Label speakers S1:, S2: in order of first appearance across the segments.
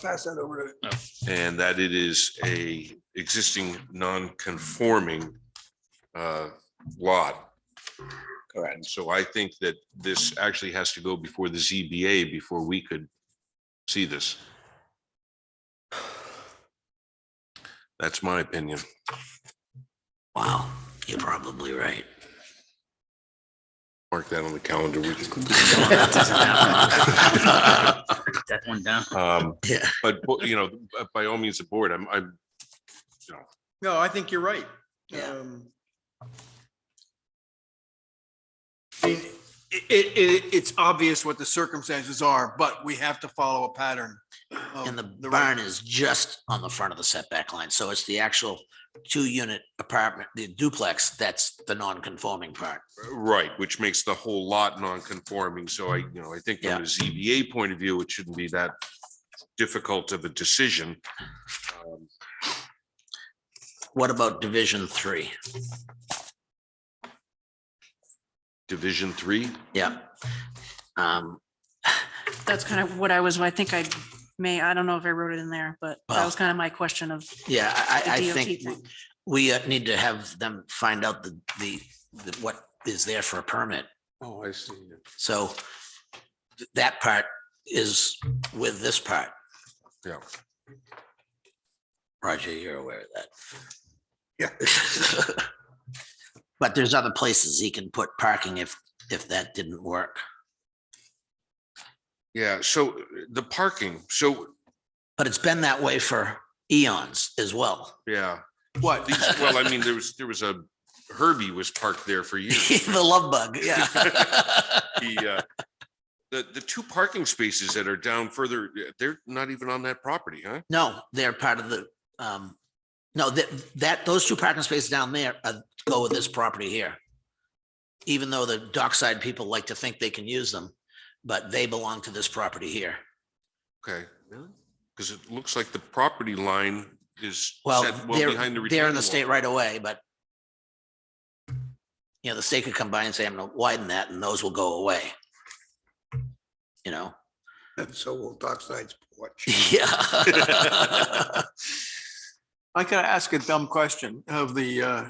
S1: pass that over to.
S2: and that it is a existing non-conforming uh, lot. And
S1: Correct.
S2: so I think that this actually has to go before the ZBA before we could see this. That's my opinion.
S3: Wow, you're probably right.
S2: Mark that on the calendar. We can-
S3: That doesn't happen. Take That one down.
S2: um,
S3: Yeah.
S2: But, but, you know, by all means, the board, I'm, I'm,
S4: No, I think you're right.
S3: Yeah.
S4: Um, I mean, It, it, it- it's obvious what the circumstances are, but we have to follow a pattern. of
S3: And the
S4: right-
S3: barn is just on the front of the setback line, so it's the actual two-unit apartment, the duplex, that's the non-conforming part.
S2: right, which makes the whole lot non-conforming. So I, you know, I think from a ZBA point of view, it shouldn't be that difficult of a decision. Um,
S3: What about division three?
S2: Division three,
S3: Yeah. Um,
S5: That's kind of what I was, I think I may, I don't know if I wrote it in there, but that
S3: Well-
S5: was kind of my question of
S3: yeah,
S5: the
S3: I, I- I
S5: DOT
S3: think
S5: thing.
S3: we uh, need to have them find out the, the, the- what is there for a permit.
S2: Oh, I see.
S3: So th- that part is with this part.
S2: Yeah.
S3: Roger, you're aware of that.
S4: Yeah.
S3: But there's other places he can put parking if, if that didn't work.
S2: Yeah, so uh, the parking, so,
S3: But it's been that way for eons as well.
S2: yeah,
S4: What?
S2: these- well, I mean, there was, there was a, Herbie was parked there for years.
S3: The love bug, yeah.
S2: The, uh, the, the two parking spaces that are down further, uh, they're not even on that property, huh?
S3: No, they're part of the, um, no, that, that, those two parking spaces down there uh, go with this property here. Even though the dockside people like to think they can use them, but they belong to this property here.
S2: Okay. Really? Because it looks like the property line is
S3: Well,
S2: set well
S3: they're,
S2: behind the
S3: they're in
S2: retaining
S3: the state
S2: wall.
S3: right away, but you know, the state could come by and say, I'm gonna widen that and those will go away. You know,
S1: So will Dockside's porch.
S3: yeah.
S4: I gotta ask a dumb question of the, uh,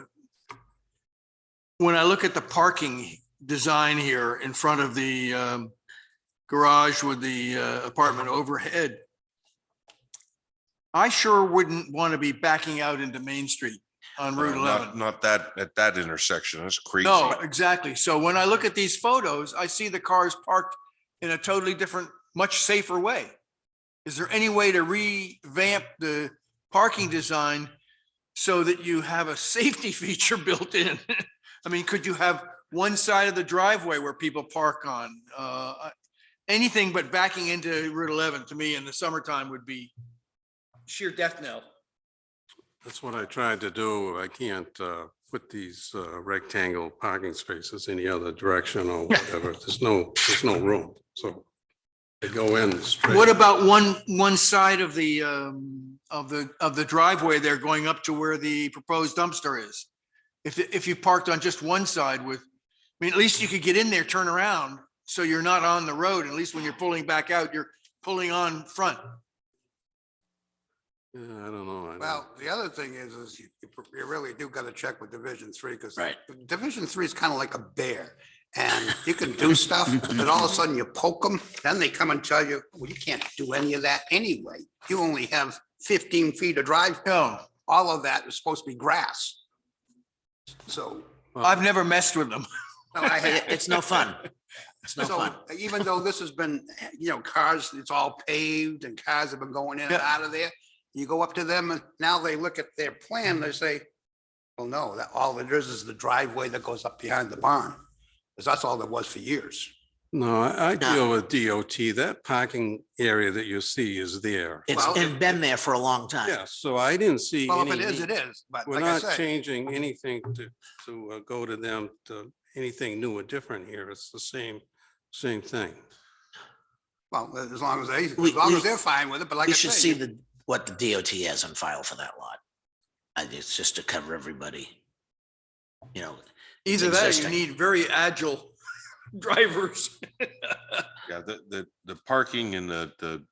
S4: when I look at the parking design here in front of the, um, garage with the uh, apartment overhead, I sure wouldn't want to be backing out into Main Street on
S2: Uh,
S4: Route
S2: not-
S4: 11.
S2: Not that, at that intersection. That's crazy.
S4: No, exactly. So when I look at these photos, I see the cars parked in a totally different, much safer way. Is there any way to revamp the parking design so that you have a safety feature built in? I mean, could you have one side of the driveway where people park on? Uh, I- Anything but backing into Route 11 to me in the summertime would be sheer death knell.
S6: That's what I tried to do. I can't uh, put these uh, rectangle parking spaces any other direction or whatever. There's no, there's no room. So they go in straight.
S4: What about one, one side of the, um, of the, of the driveway there going up to where the proposed dumpster is? If, if you parked on just one side with, I mean, at least you could get in there, turn around, so you're not on the road. At least when you're pulling back out, you're pulling on front.
S6: Yeah, I don't know. I don't-
S1: Well, the other thing is, is you, you really do gotta check with Division Three, because
S3: Right.
S1: Division Three is kind of like a bear. And you can do stuff, and all of a sudden you poke them, then they come and tell you, well, you can't do any of that anyway. You only have fifteen feet of drive.
S4: No,
S1: All of that is supposed to be grass. So,
S4: I've never messed with them.
S1: no, I had-
S3: It- It's no fun. It's no
S1: So
S3: fun.
S1: even though this has been, you know, cars, it's all paved and cars have been going in and
S4: Yeah.
S1: out of there. You go up to them and now they look at their plan, they say, well, no, that all it is is the driveway that goes up behind the barn. Because that's all there was for years.
S6: No, I I
S3: No.
S6: deal with DOT. That parking area that you see is there.
S3: It's
S1: Well,
S3: it's been there for a long time.
S6: Yeah, so I didn't see
S1: Well, if
S6: any
S1: it is,
S6: need-
S1: it is, but
S6: We're
S1: like I
S6: not
S1: said,
S6: changing anything to, to uh, go to them, to anything new or different here. It's the same, same thing.
S1: well, as long as they, as
S3: We-
S1: long
S3: we-
S1: as they're fine with it, but like I
S3: You should see
S1: said,
S3: the, what the DOT has on file for that lot. I it's just to cover everybody. You know,
S4: Either that, or you
S3: Existing.
S4: need very agile drivers.
S2: Yeah, the, the, the parking and the, the